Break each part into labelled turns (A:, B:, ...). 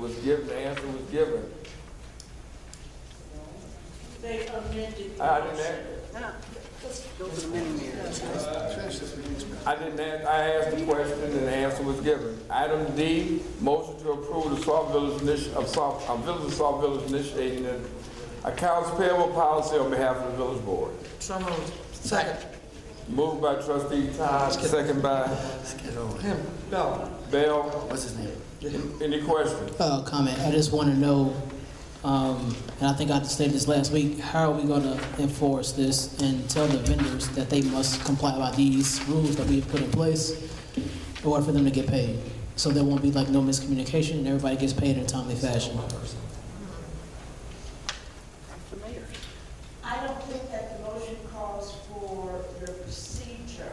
A: was given, the answer was given.
B: They amended the
A: I didn't
B: motion.
A: ask,
C: Go to the mini mirror.
A: I didn't ask, I asked the question and the answer was given. Item D, motion to approve the Saw Village initiative, of Saw, of Village of Saw Village initiating an accounts payable policy on behalf of the village board.
C: So moved. Second.
A: Moved by trustee Todd, second by
C: Get over him. No.
A: Bell.
C: What's his name?
A: Any questions?
D: uh, comment. I just want to know, um, and I think I stated this last week, how are we going to enforce this and tell the vendors that they must comply by these rules that we've put in place in order for them to get paid? So there won't be like no miscommunication and everybody gets paid in a timely fashion.
B: I don't think that the motion calls for the procedure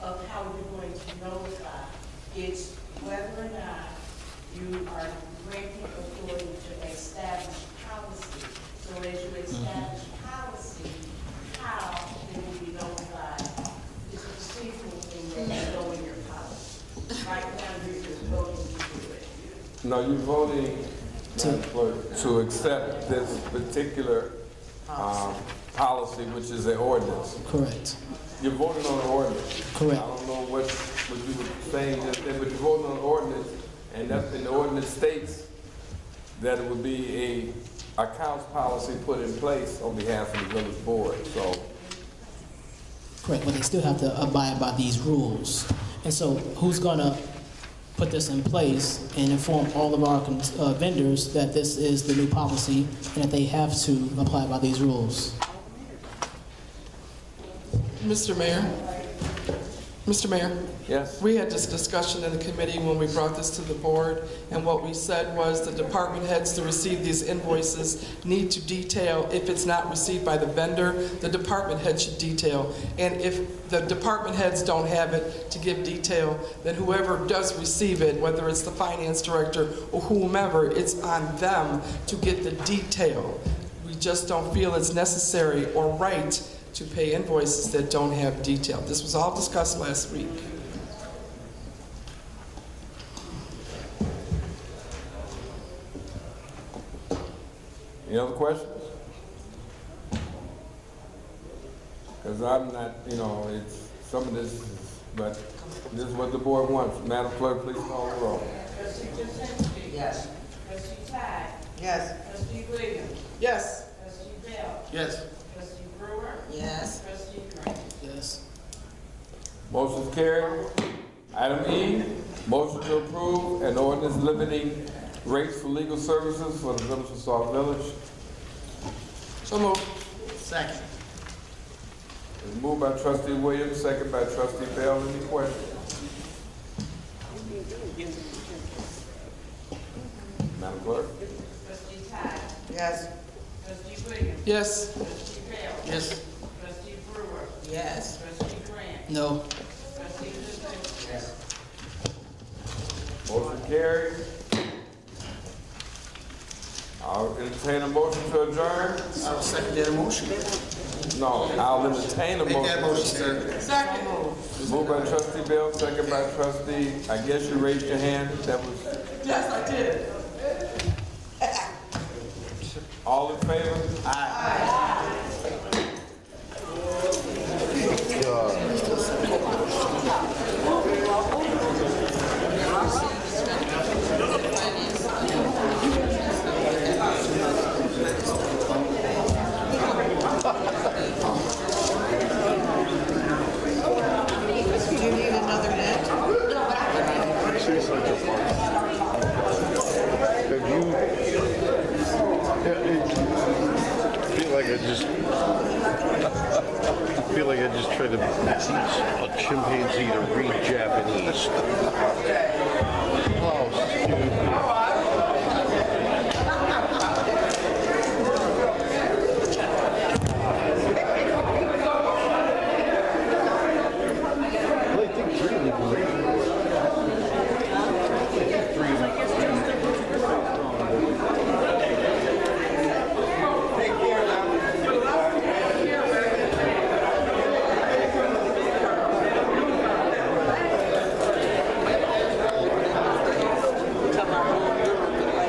B: of how you're going to notify. It's whether or not you are granting authority to establish policy. So as you establish policy, how they will be notified is a procedural thing that you know in your policy. Right now, you're just voting to do it.
A: No, you voting Madam Clerk, to accept this particular, um, policy, which is an ordinance.
D: Correct.
A: You're voting on an ordinance.
D: Correct.
A: I don't know what, what you were saying just then, but you're voting on an ordinance, and that's in the ordinance states that it would be a accounts policy put in place on behalf of the village board, so.
D: Correct, but they still have to abide by these rules. And so who's going to put this in place and inform all of our con- uh, vendors that this is the new policy and that they have to apply by these rules?
E: Mr. Mayor, Mr. Mayor,
A: Yes,
E: we had this discussion in the committee when we brought this to the board, and what we said was the department heads to receive these invoices need to detail, if it's not received by the vendor, the department head should detail. And if the department heads don't have it to give detail, then whoever does receive it, whether it's the finance director or whomever, it's on them to get the detail. We just don't feel it's necessary or right to pay invoices that don't have detail. This was all discussed last week.
A: any other questions? Cause I'm not, you know, it's, some of this, is- but this is what the board wants. Madam Clerk, please call the roll.
B: Trustee Jazinski.
C: Yes.
B: Trustee Todd.
C: Yes.
B: Trustee Williams.
E: Yes.
B: Trustee Bell.
C: Yes.
B: Trustee Brewer.
C: Yes.
B: Trustee Grant.
D: Yes.
A: Motion's carried. Item E, motion to approve an ordinance limiting rates for legal services for the village of Saw Village.
E: So moved.
C: Second.
A: It's moved by trustee Williams, second by trustee Bell. Any questions? Madam Clerk?
B: Trustee Todd.
C: Yes.
B: Trustee Williams.
E: Yes.
B: Trustee Bell.
C: Yes.
B: Trustee Brewer.
C: Yes.
B: Trustee Grant.
D: No.
B: Trustee Jazinski.
A: Motion carried. I'll entertain a motion to adjourn.
C: I'll second that motion.
A: No, I'll entertain a
C: Make that
A: motion.
C: motion, sir.
E: Second.
A: Moved by trustee Bell, second by trustee, I guess you raised your hand. That was
E: Yes, I did.
A: All in favor?
C: Do you need another net?
F: She's such a fun. Have you? Yeah, it- feel like I just. feel like I just tried to teach a chimpanzee to read Japanese. Oh,